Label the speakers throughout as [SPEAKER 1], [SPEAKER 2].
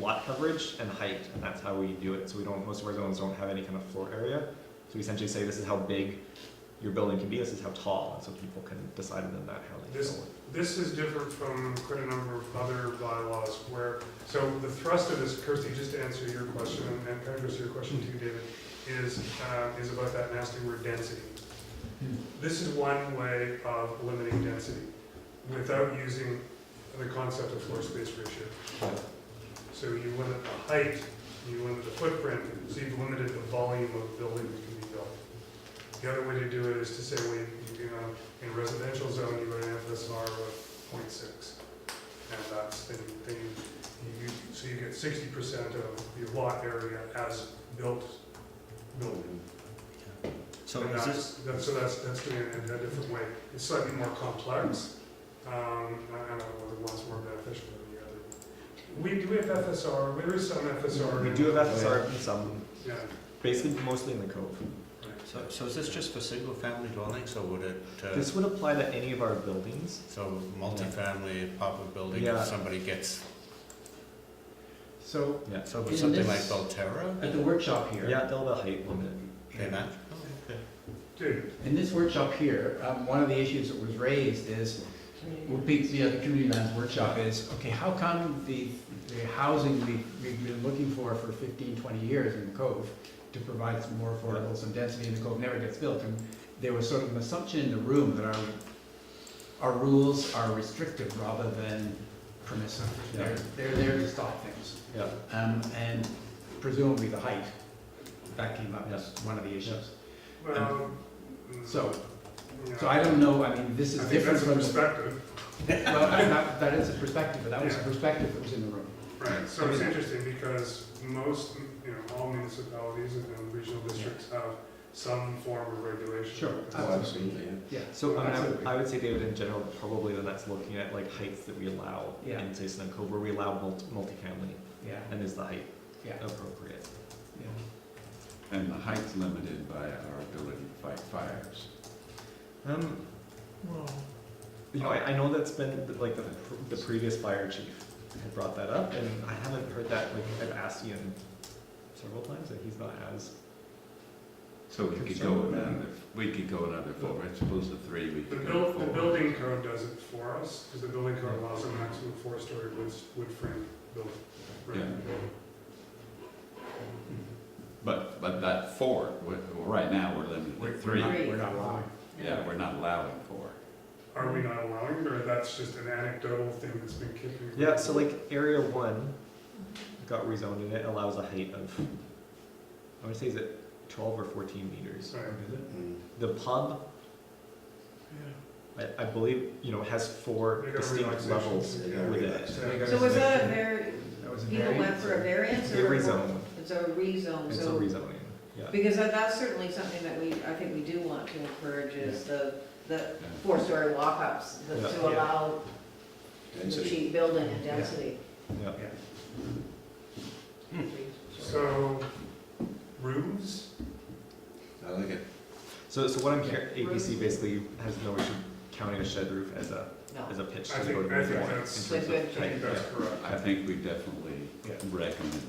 [SPEAKER 1] lot coverage and height, and that's how we do it. So we don't, most of our zones don't have any kind of floor area. So we essentially say, this is how big your building can be, this is how tall, and so people can decide within that how they
[SPEAKER 2] This-
[SPEAKER 1] feel.
[SPEAKER 2] This is different from quite a number of other bylaws where, so the thrust of this, Kirsty, just to answer your question, and and kind of goes to your question too, David, is, uh, is about that nasty word density. This is one way of limiting density without using the concept of floor space ratio. So you limit the height, you limit the footprint, so you've limited the volume of building that can be built. The other way to do it is to say, well, you, you know, in residential zone, you would an FSR of 0.6, And that's, then, you- then you, you, so you get sixty percent of your lot area as built building.
[SPEAKER 3] So
[SPEAKER 2] And
[SPEAKER 3] is
[SPEAKER 2] that's-
[SPEAKER 3] this,
[SPEAKER 2] That's, so that's, that's doing it in a different way. It's slightly more complex. Um, I I don't know whether one's more beneficial than the other. We, do we have FSR? There is some FSR.
[SPEAKER 1] We do have FSR, some,
[SPEAKER 2] Yeah,
[SPEAKER 1] basically mostly in the cove.
[SPEAKER 2] right.
[SPEAKER 3] so, so is this just for single-family dwellings, or would it, uh,
[SPEAKER 1] This would apply to any of our buildings.
[SPEAKER 3] so multifamily, apartment building,
[SPEAKER 1] Yeah.
[SPEAKER 3] if somebody gets,
[SPEAKER 1] So, yeah,
[SPEAKER 3] so
[SPEAKER 4] In
[SPEAKER 3] with something like
[SPEAKER 4] this-
[SPEAKER 3] Belterra?
[SPEAKER 4] At the workshop here.
[SPEAKER 1] yeah, they'll have a height limit.
[SPEAKER 3] They're not? Oh, okay.
[SPEAKER 2] Dude,
[SPEAKER 4] In this workshop here, um, one of the issues that was raised is, would be, you know, the community lands workshop is, okay, how come the, the housing we, we've been looking for for 15, 20 years in the Cove to provide some more affordable, some density in the Cove never gets built? And there was sort of an assumption in the room that our, our rules are restrictive rather than permissive.
[SPEAKER 1] Yeah.
[SPEAKER 4] They're, they're there to stop things.
[SPEAKER 1] Yeah,
[SPEAKER 4] Um, and presumably the height, that came up as one of the issues.
[SPEAKER 2] well. mm,
[SPEAKER 4] So,
[SPEAKER 2] yeah.
[SPEAKER 4] So I don't know, I mean, this
[SPEAKER 2] I
[SPEAKER 4] is
[SPEAKER 2] think
[SPEAKER 4] different
[SPEAKER 2] that's a
[SPEAKER 4] from, the-
[SPEAKER 2] perspective.
[SPEAKER 4] well, I- that, that is a perspective, but that was a
[SPEAKER 2] Yeah.
[SPEAKER 4] perspective that was in the room.
[SPEAKER 2] Right, so it's interesting because most, you know, all municipalities and and regional districts have some form of regulation.
[SPEAKER 4] Sure,
[SPEAKER 5] Oh,
[SPEAKER 4] absolutely, yeah.
[SPEAKER 1] so I mean, I would-
[SPEAKER 4] Absolutely.
[SPEAKER 1] I would say, David, in general, probably then that's looking at like heights that we allow
[SPEAKER 4] Yeah.
[SPEAKER 1] in, say, Snow Cove, where we allow multi- multifamily,
[SPEAKER 4] Yeah,
[SPEAKER 1] and is the height
[SPEAKER 4] yeah,
[SPEAKER 1] appropriate?
[SPEAKER 4] yeah.
[SPEAKER 5] And the height's limited by our ability to fight fires.
[SPEAKER 1] Um, you know, I, I know that's been, like, the, pr- the previous fire chief had brought that up, and I haven't heard that, like, I've asked Ian several times, and he's not as,
[SPEAKER 5] So we could go another, we could go another four, I suppose the three, we
[SPEAKER 2] The
[SPEAKER 5] could go
[SPEAKER 2] buil, the
[SPEAKER 5] four.
[SPEAKER 2] building code does it for us, because the building code allows a maximum four-story wood, wood frame building. right?
[SPEAKER 5] But, but that four, we're- well, right now, we're limited
[SPEAKER 4] We're-
[SPEAKER 5] to
[SPEAKER 4] we're
[SPEAKER 5] three.
[SPEAKER 4] not- We're not allowing.
[SPEAKER 5] Yeah, we're not allowing four.
[SPEAKER 2] Are we not allowing, it, or that's just an anecdotal thing that's been kicking?
[SPEAKER 1] yeah, so like, area one got rezoned, and it allows a height of, I would say, is it twelve or fourteen meters?
[SPEAKER 2] Right.
[SPEAKER 1] Is it? The pub,
[SPEAKER 2] Yeah.
[SPEAKER 1] I, I believe, you know, has four
[SPEAKER 2] They got
[SPEAKER 1] distinct
[SPEAKER 2] relaxations.
[SPEAKER 1] levels
[SPEAKER 2] They
[SPEAKER 5] got
[SPEAKER 1] within it.
[SPEAKER 5] relax.
[SPEAKER 4] So we got
[SPEAKER 6] So was that a
[SPEAKER 4] variance.
[SPEAKER 6] var,
[SPEAKER 4] That was a
[SPEAKER 6] you went
[SPEAKER 4] variance.
[SPEAKER 6] for a variance
[SPEAKER 1] It's a
[SPEAKER 6] or? a-
[SPEAKER 1] rezoning,
[SPEAKER 6] It's a rezone,
[SPEAKER 1] it's a
[SPEAKER 6] so,
[SPEAKER 1] rezoning, yeah.
[SPEAKER 6] because that- that's certainly something that we, I think we do want to encourage is the, the four-story walk-ups, the-
[SPEAKER 1] Yeah.
[SPEAKER 6] to allow the cheap building and density.
[SPEAKER 1] Yeah.
[SPEAKER 2] So, roofs?
[SPEAKER 5] I like it.
[SPEAKER 1] So, so what I'm hearing, ABC basically has no issue counting a shed roof as a,
[SPEAKER 6] No,
[SPEAKER 1] as a pitch
[SPEAKER 2] I
[SPEAKER 1] to
[SPEAKER 2] think-
[SPEAKER 1] go to
[SPEAKER 2] I
[SPEAKER 1] the
[SPEAKER 2] think
[SPEAKER 1] warrant.
[SPEAKER 2] that's-
[SPEAKER 1] in terms of
[SPEAKER 6] With- with-
[SPEAKER 2] I think
[SPEAKER 1] height,
[SPEAKER 2] that's
[SPEAKER 1] yeah.
[SPEAKER 2] correct.
[SPEAKER 5] I think we definitely
[SPEAKER 4] Yeah.
[SPEAKER 5] recommend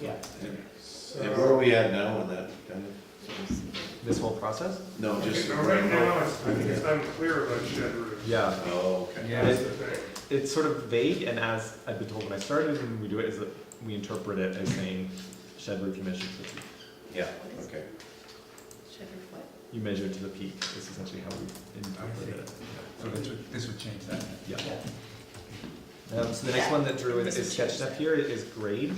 [SPEAKER 4] Yeah.
[SPEAKER 5] that.
[SPEAKER 2] So,
[SPEAKER 5] we at now on that?
[SPEAKER 1] This whole process?
[SPEAKER 5] No,
[SPEAKER 2] Okay, now right now, it's- I think it's unclear about shed roofs.
[SPEAKER 1] Yeah,
[SPEAKER 5] Oh, okay.
[SPEAKER 4] Yeah.
[SPEAKER 2] That's the thing.
[SPEAKER 1] it's sort of vague, and as I've been told when I started, when we do it, is that we interpret it as saying shed roof, you measure to the peak.
[SPEAKER 5] Yeah,
[SPEAKER 6] okay. check your foot.
[SPEAKER 1] You measure to the peak, is essentially how we interpret it.
[SPEAKER 4] So this would, this would change that.
[SPEAKER 1] Yeah. Um, so the next one that Drew is
[SPEAKER 6] This
[SPEAKER 1] is
[SPEAKER 6] is
[SPEAKER 1] sketched up here is grade.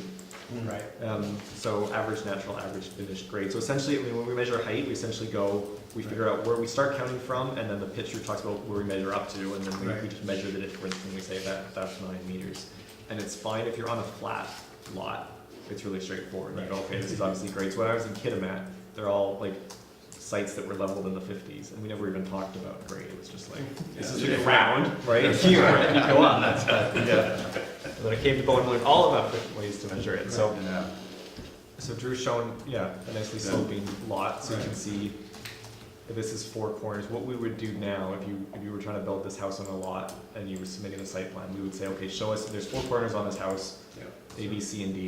[SPEAKER 4] Right.
[SPEAKER 1] Um, so average natural, average finished grade. So essentially, I mean, when we measure height, we essentially go, we figure out where we start counting from, and then the picture talks about where we measure up to, and then we, we
[SPEAKER 4] Right.
[SPEAKER 1] just measure the difference when we say that that's nine meters. And it's fine if you're on a flat lot, it's really straightforward. You go,
[SPEAKER 4] Right.
[SPEAKER 1] okay, this is obviously grades. When I was in Kitimat, they're all like sites that were leveled in the fifties, and we never even talked about grade. It was just like, this is
[SPEAKER 5] Yeah.
[SPEAKER 1] a round, right here, and you go on, that's, yeah. And then I came to Bowen and learned all about different ways to measure it, so.
[SPEAKER 5] Yeah.
[SPEAKER 1] So Drew's shown, yeah, a nicely
[SPEAKER 5] Yeah.
[SPEAKER 1] sloping lot, so you can
[SPEAKER 5] Right.
[SPEAKER 1] see that this is four corners. What we would do now, if you, if you were trying to build this house on a lot and you were submitting a site plan, we would say, okay, show us, there's four corners on this house,
[SPEAKER 5] Yeah.
[SPEAKER 1] A, B, C, and D.